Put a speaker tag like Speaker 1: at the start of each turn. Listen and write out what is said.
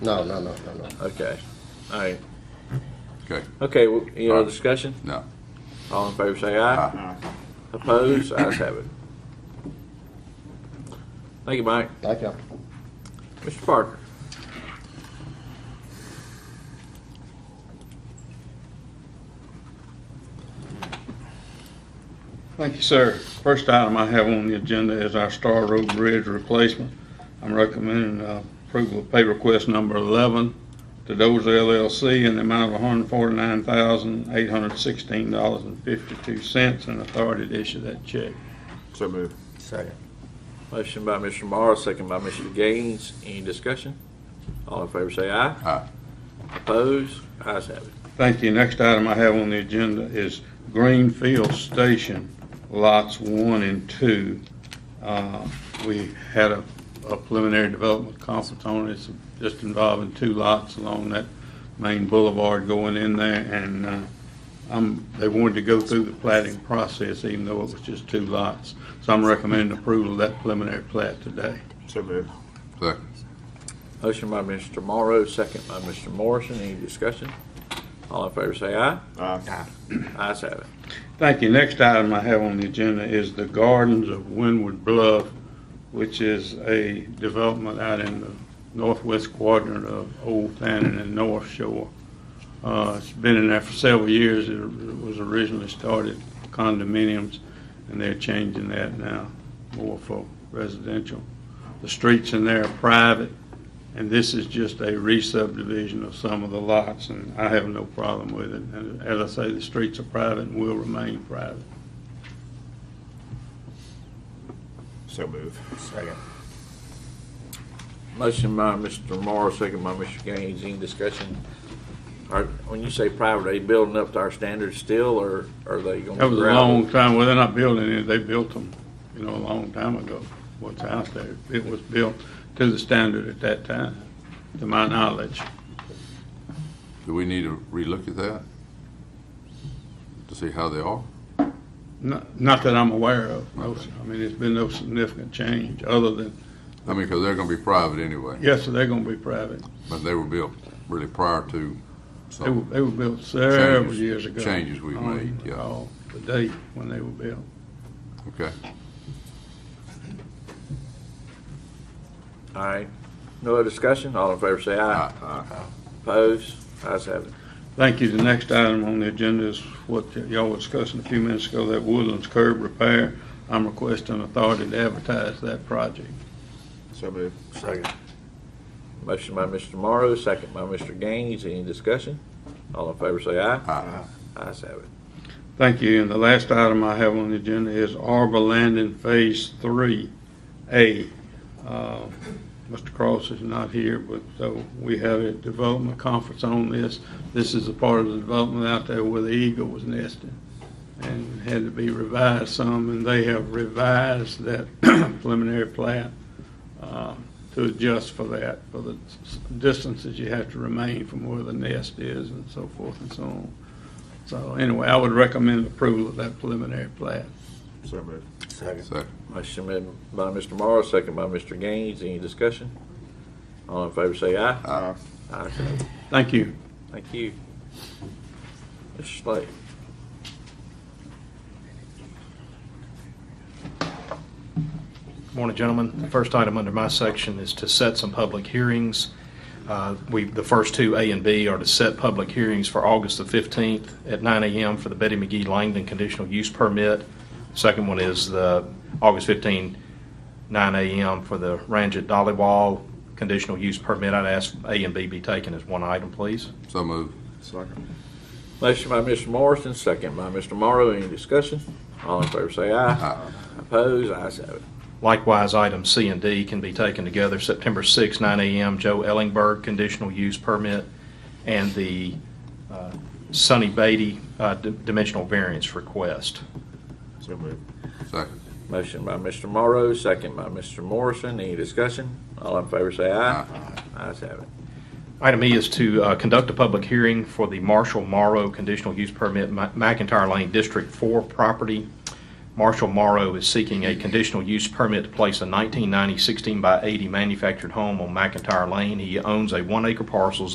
Speaker 1: No, no, no, no, no.
Speaker 2: Okay. All right.
Speaker 3: Okay,
Speaker 2: Okay, well, any
Speaker 3: All
Speaker 2: other
Speaker 3: right.
Speaker 2: discussion?
Speaker 3: no.
Speaker 2: All in favor say aye.
Speaker 3: Aye.
Speaker 2: Opposed? Ayes have it. Thank you, Mike.
Speaker 1: Thank you.
Speaker 2: Mr. Parker.
Speaker 4: Thank you, sir. First item I have on the agenda is our Star Road Bridge replacement. I'm recommending uh, approval of pay request number 11 to Dozer LLC in the amount of $149,816.52 and authority to issue that check.
Speaker 5: So move.
Speaker 1: Second.
Speaker 2: Motion by Mr. Morris, second by Mr. Gaines. Any discussion? All in favor say aye.
Speaker 3: Aye.
Speaker 2: Opposed? Ayes have it.
Speaker 4: Thank you. Next item I have on the agenda is Greenfield Station, lots one and two. Uh, We had a a preliminary development conference on it, It's just involving two lots along that main boulevard going in there, and uh, I'm, they wanted to go through the plating process, even though it was just two lots. So I'm recommending approval of that preliminary plat today.
Speaker 5: So move.
Speaker 3: Second,
Speaker 2: Motion by Mr. Morrow, second by Mr. Morrison. Any discussion? All in favor say aye.
Speaker 5: Aye.
Speaker 2: Ayes have it.
Speaker 4: Thank you. Next item I have on the agenda is the Gardens of Windward Bluff, which is a development out in the northwest quadrant of Old Fannin and North Shore. Uh, It's been in there for several years. It was originally started condominiums, and they're changing that now more for residential. The streets in there are private, and this is just a re-subdivision of some of the lots, and I have no problem with it. And as I say, the streets are private and will remain private.
Speaker 5: So move.
Speaker 1: Second.
Speaker 2: Motion by Mr. Morrow, second by Mr. Gaines. Any discussion? Are, when you say private, are they building up to our standards still, or are they gonna?
Speaker 4: That was a
Speaker 2: gravel?
Speaker 4: long time, well, they're not building it, they built them, you know, a long time ago, what's out there. It was built to the standard at that time, to my knowledge.
Speaker 3: do we need to relook at that? To see how they are?
Speaker 4: Not not that I'm aware of, no, sir. I mean, there's been no significant change, other than,
Speaker 3: I mean, because they're gonna be private anyway,
Speaker 4: yes, sir, they're gonna be private.
Speaker 3: but they were built really prior to
Speaker 4: They were,
Speaker 3: some
Speaker 4: they were built several
Speaker 3: Changes-
Speaker 4: years ago.
Speaker 3: changes we've
Speaker 4: I don't
Speaker 3: made, yeah.
Speaker 4: recall The date when they were built.
Speaker 3: Okay,
Speaker 2: All right. No other discussion? All in favor say aye. Opposed? Ayes have it.
Speaker 4: Thank you. The next item on the agenda is what y'all were discussing a few minutes ago, that Woodlands curb repair. I'm requesting authority to advertise that project.
Speaker 5: So move.
Speaker 1: Second.
Speaker 2: Motion by Mr. Morrow, second by Mr. Gaines. Any discussion? All in favor say aye.
Speaker 3: Aye.
Speaker 2: Ayes have it.
Speaker 4: Thank you. And the last item I have on the agenda is Arbor Landing Phase Three A. Uh, Mr. Cross is not here, but uh, we had a development conference on this. This is a part of the development out there where the eagle was nesting and had to be revised some, and they have revised that preliminary plat uh, to adjust for that, for the s- distances you have to remain from where the nest is and so forth and so on. So anyway, I would recommend approval of that preliminary plat.
Speaker 5: So move.
Speaker 1: Second.
Speaker 3: second,
Speaker 2: Motion made by Mr. Morrow, second by Mr. Gaines. Any discussion? All in favor say aye.
Speaker 5: Aye.
Speaker 2: Ayes have it.
Speaker 4: Thank you.
Speaker 2: Thank you. Mr. Slade.
Speaker 6: Morning, gentlemen. The first item under my section is to set some public hearings. Uh, We, the first two, A and B, are to set public hearings for August the 15th at 9 a.m. for the Betty McGee Langdon conditional use permit. Second one is the August 15, 9 a.m. for the Ranjit Dollywall conditional use permit. I'd ask A and B be taken as one item, please.
Speaker 3: so move,
Speaker 5: Second.
Speaker 2: Motion by Mr. Morrison, second by Mr. Morrow. Any discussion? All in favor say aye.
Speaker 3: aye,
Speaker 2: Opposed? Ayes have it.
Speaker 6: Likewise, item C and D can be taken together. September 6, 9 a.m., Joe Ellingberg, conditional use permit, and the uh, Sonny Beatty uh, d- dimensional variance request.
Speaker 5: So move.
Speaker 3: second,
Speaker 2: Motion by Mr. Morrow, second by Mr. Morrison. Any discussion? All in favor say aye. Ayes have it.
Speaker 6: Item E is to uh, conduct a public hearing for the Marshall Morrow conditional use permit, Ma- McIntyre Lane District 4 property. Marshall Morrow is seeking a conditional use permit to place a 1990 16 by 80 manufactured home on McIntyre Lane. He owns a one acre parcel